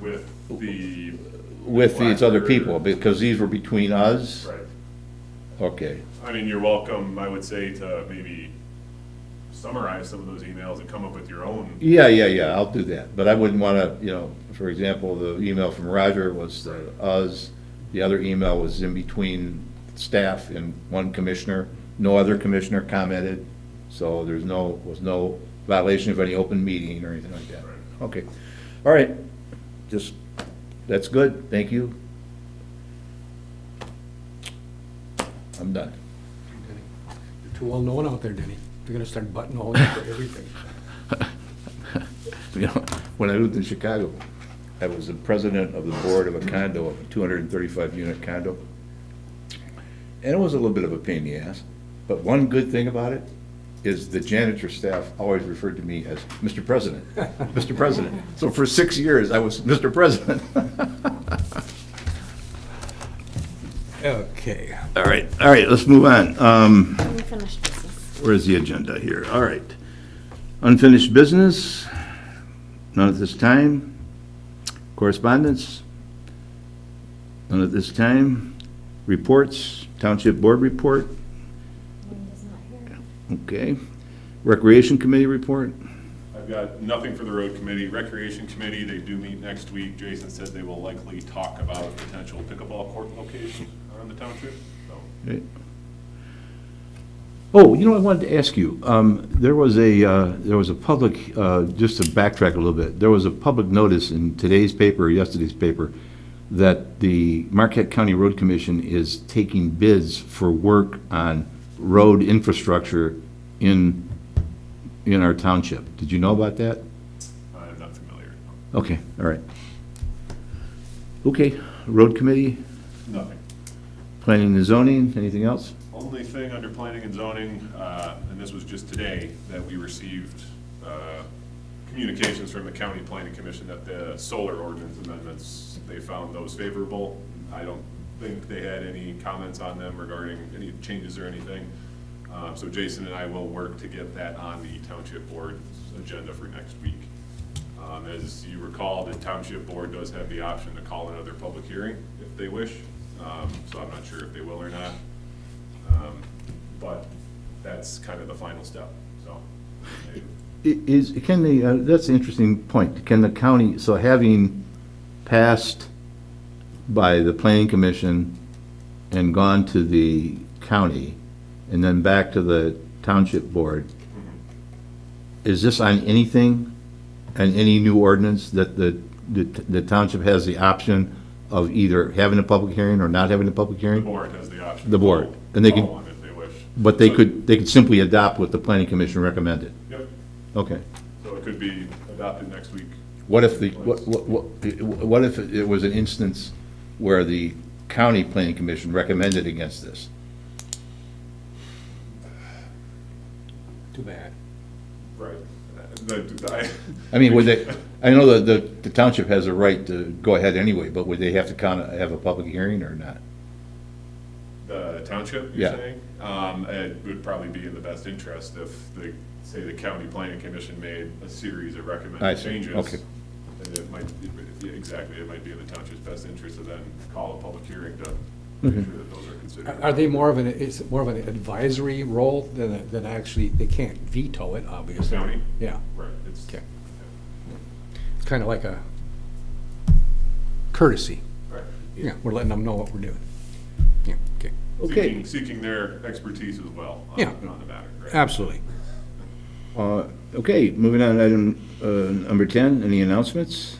with the, with these other Blackbird. people, because these were between us? right. Okay, I mean, you're welcome, I would say, to maybe summarize some of those emails and come up with your own. yeah, yeah, yeah, I'll do that, but I wouldn't want to, you know, for example, the email from Roger was uh, us, the other email was in between staff and one commissioner, no other commissioner commented, so there's no, was no violation of any open meeting or anything like that. Right. Okay, all right, just, that's good, thank you. I'm done. Denny. You're too well-known out there, Denny. They're gonna start buttonholing you for everything. You know, when I lived in Chicago, I was the president of the board of a condo, a 235-unit condo. And it was a little bit of a pain in the ass, but one good thing about it is the janitor staff always referred to me as Mr. President, Mr. President. So for six years, I was Mr. President. Okay. All right, all right, let's move on. Um, Unfinished business. Where's the agenda here? All right. Unfinished business? None at this time. Correspondence? None at this time. Reports? Township Board report? Linda's not here. Okay. Recreation Committee report? I've got nothing for the road committee, recreation committee, they do meet next week. Jason said they will likely talk about potential pickleball court locations around the township, so. Right. Oh, you know, I wanted to ask you, um, there was a, uh, there was a public, uh, just to backtrack a little bit, there was a public notice in today's paper, or yesterday's paper, that the Marquette County Road Commission is taking bids for work on road infrastructure in, in our township. Did you know about that? I'm not familiar. Okay, all right. Okay, Road Committee, Nothing. Planning and Zoning, anything else? Only thing under planning and zoning, uh, and this was just today, that we received uh, communications from the county planning commission that the solar ordinance amendments, they found those favorable. I don't think they had any comments on them regarding any changes or anything. Uh, So Jason and I will work to get that on the township board's agenda for next week. Um, As you recall, the township board does have the option to call another public hearing if they wish, Um, so I'm not sure if they will or not. Um, But that's kind of the final step, so. I- I- Is, can the, uh, that's an interesting point. Can the county, so having passed by the planning commission and gone to the county and then back to the township board, is this on anything, on any new ordinance that the, the the township has the option of either having a public hearing or not having a public The hearing? board has the option. The board, and they can- Call on if they wish. But they So- could, they could simply adopt what the planning commission recommended. Yep, Okay. so it could be adopted next week. What if the, what, what, what what if it was an instance where the county planning commission recommended against this? Too bad. Right. The- I- I mean, would they, I know that the the township has a right to go ahead anyway, but would they have to kind of have a public hearing or not? The township, you're Yeah. saying? Um, It would probably be in the best interest if the, say, the county planning commission made a series of I recommended see, changes. okay. And it might, it- yeah, exactly, it might be in the township's best interest to then call a public hearing to Mm-hmm. make sure that those are Are- considered. Are they more of an, is it more of an advisory role than, a- than actually, they can't veto it, obviously? County? Yeah, Right, it's. Okay. yeah, it's kind of like a courtesy. Right. Yeah, we're letting them know what we're doing. Yeah, okay, Okay. Seeking, seeking their expertise as well on- Yeah. on the matter. right? absolutely. Uh, okay, moving on, to item, uh, number ten, any announcements?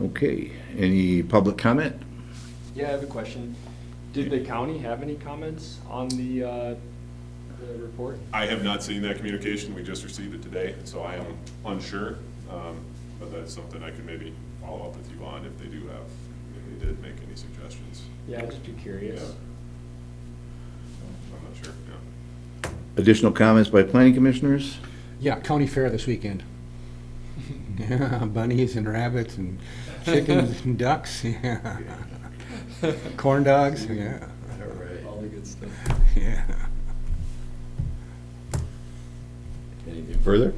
Okay, any public comment? Yeah, I have a question. Did the county have any comments on the, uh, the report? I have not seen that communication, we just received it today, so I am unsure, um, but that's something I could maybe follow up with you on if they do have, if they did make any suggestions. Yeah, I'd just be curious. I'm not sure, yeah. Additional comments by planning commissioners? Yeah, county fair this weekend. Yeah, bunnies and rabbits and chickens and ducks, yeah. Corn dogs, yeah, All the good stuff. yeah. Anything further?